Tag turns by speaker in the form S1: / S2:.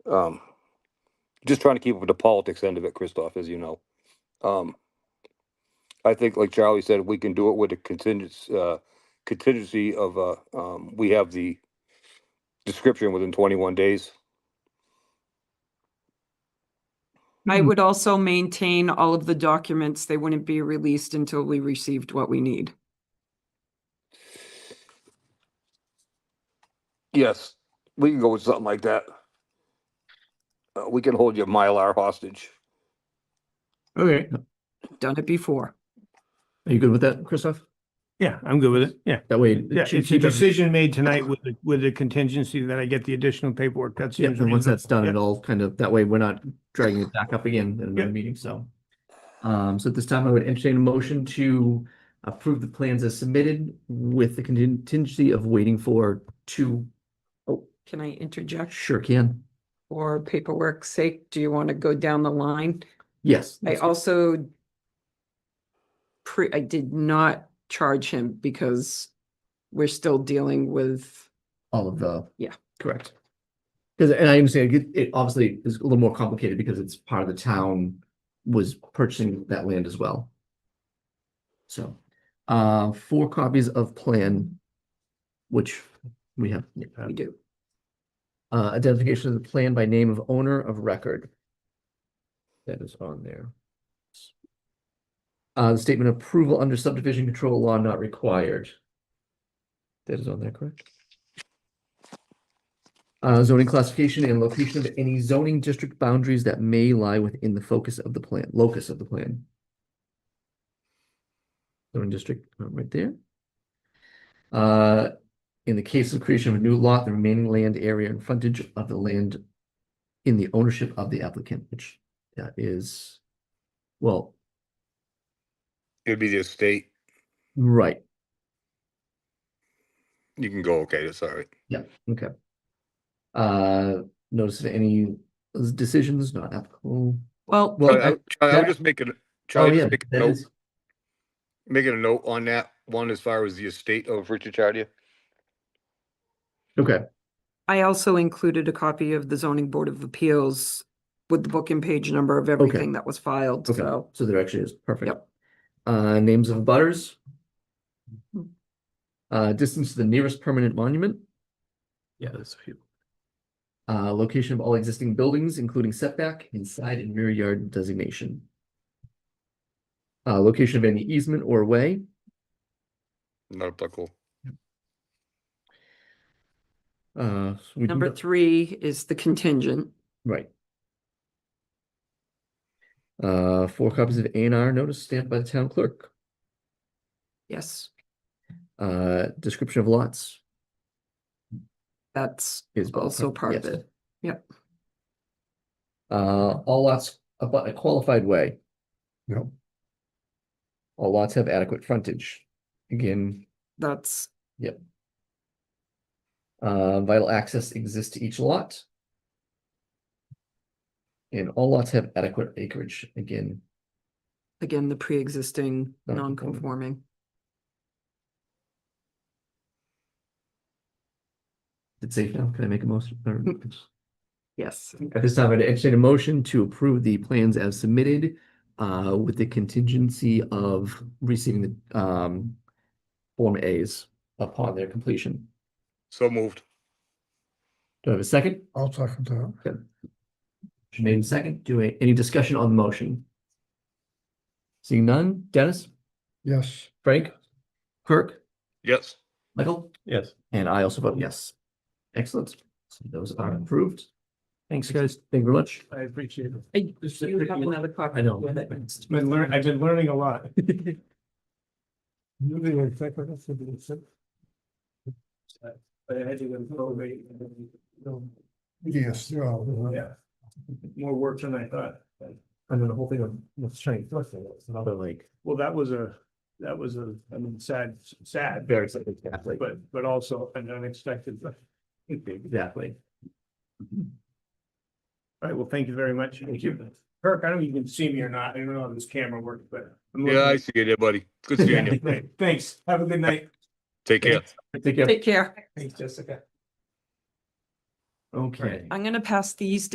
S1: Um, just trying to keep up with the politics end of it, Christoph, as you know. Um, I think, like Charlie said, we can do it with a contingency, uh, contingency of, uh, um, we have the description within twenty-one days.
S2: I
S3: Hmm.
S4: Hmm.
S2: would also maintain all of the documents. They wouldn't be released until we received what we need.
S1: Yes, we can go with something like that. Uh, we can hold your Mylar hostage.
S4: Okay,
S2: Done it before.
S4: are you good with that, Christoph?
S3: Yeah, I'm good with it. Yeah.
S4: That way.
S3: Yeah,
S4: she-
S3: it's
S4: she
S3: a
S4: doesn't-
S3: decision made tonight with, the- with the contingency that I get the additional paperwork. That
S4: Yeah,
S3: seems
S4: and once that's done,
S3: reasonable.
S4: it all kind of, that way we're not dragging it back up again in
S3: Yeah.
S4: another meeting, so. Um, so at this time, I would entertain a motion to approve the plans as submitted with the contingency of waiting for two,
S2: Can I interject?
S4: sure can,
S2: For paperwork's sake, do you want to go down the line?
S4: yes.
S2: I also pre, I did not charge him because we're still dealing with,
S4: All of the.
S2: Yeah.
S4: Correct. Because, and I understand, it it obviously is a little more complicated because it's part of the town was purchasing that land as well. So, uh, four copies of plan, which we have.
S2: we do.
S4: Uh, identification of the plan by name of owner of record. That is on there. Uh, the statement of approval under subdivision control law not required. That is on there, correct? Uh, zoning classification and location of any zoning district boundaries that may lie within the focus of the plan, locus of the plan. Zoning district, uh, right there. Uh, in the case of creation of a new lot, the remaining land area and frontage of the land in the ownership of the applicant, which that is, well,
S1: It'd be the estate.
S4: right,
S1: You can go, okay, that's all right.
S4: yeah, okay. Uh, notice that any decisions not applicable.
S2: Well,
S4: Well,
S1: Charlie, I
S4: I-
S1: would Charlie, I would
S4: that-
S1: just make it,
S4: oh
S1: Charlie,
S4: yeah,
S1: just make a
S4: that
S1: note,
S4: is,
S1: making a note on that one as far as the estate of Richard Chardia.
S4: okay,
S2: I also included a copy of the zoning board of appeals with the book and page number of everything that was filed,
S4: okay,
S2: so.
S4: so there actually is, perfect.
S2: Yep.
S4: Uh, names of butters. Uh, distance to the nearest permanent monument.
S5: Yeah, there's a few.
S4: Uh, location of all existing buildings, including setback, inside and rear yard designation. Uh, location of any easement or way,
S1: Not applicable.
S4: uh. so we do
S2: Number
S4: not-
S2: three is the contingent.
S4: Right. Uh, four copies of A and R notice stamped by the town clerk,
S2: Yes,
S4: uh, description of lots
S2: that's
S4: is. by the
S2: Also
S4: clerk,
S2: part of
S4: yes.
S2: it. Yep.
S4: Uh, all lots about a qualified way,
S5: No.
S4: all lots have adequate frontage, again,
S2: that's
S4: Uh, vital access exists to each lot. And all lots have adequate acreage, again,
S2: again the pre-existing
S4: Non-conforming.
S2: non-conforming.
S4: it's safe now, can I make a motion? Or-
S2: Mm. Yes,
S4: At this time, I'd entertain a motion to approve the plans as submitted, uh, with the contingency of receiving the, um. Form As upon their completion.
S1: So moved.
S4: Do I have a second?
S5: I'll talk about.
S4: Motion made in second, do I, any discussion on the motion? Seeing none, Dennis,
S5: Yes.
S4: Frank, Kirk,
S1: Yes.
S4: Michael?
S3: Yes.
S4: And I also vote yes. Excellent. So those are approved.
S3: Thanks, guys.
S4: Thank you very much.
S3: I appreciate it.
S2: I-
S3: This is-
S2: you have another copy.
S4: I know.
S2: Yeah, that-
S3: It's been learn, I've been learning a lot. But I had to go probate.
S5: Yes, they're all.
S3: Yeah. More work than I thought. And then the whole thing of, of strength, it's another like. Well, that was a, that was a, I mean, sad, sad. Very sad,
S4: exactly.
S3: But, but also an unexpected. All
S4: Exactly.
S3: right, well, thank you very much. Thank you. Kirk, I don't know if you can see me or not, I don't know if this camera works, but. I'm
S1: Yeah, I
S3: looking.
S1: see you there, buddy. Good seeing you.
S3: Great, Thanks, have a good night.
S1: Take care.
S4: Take care.
S2: Take care.
S3: Thanks, Jessica.
S4: Okay.
S2: I'm gonna pass these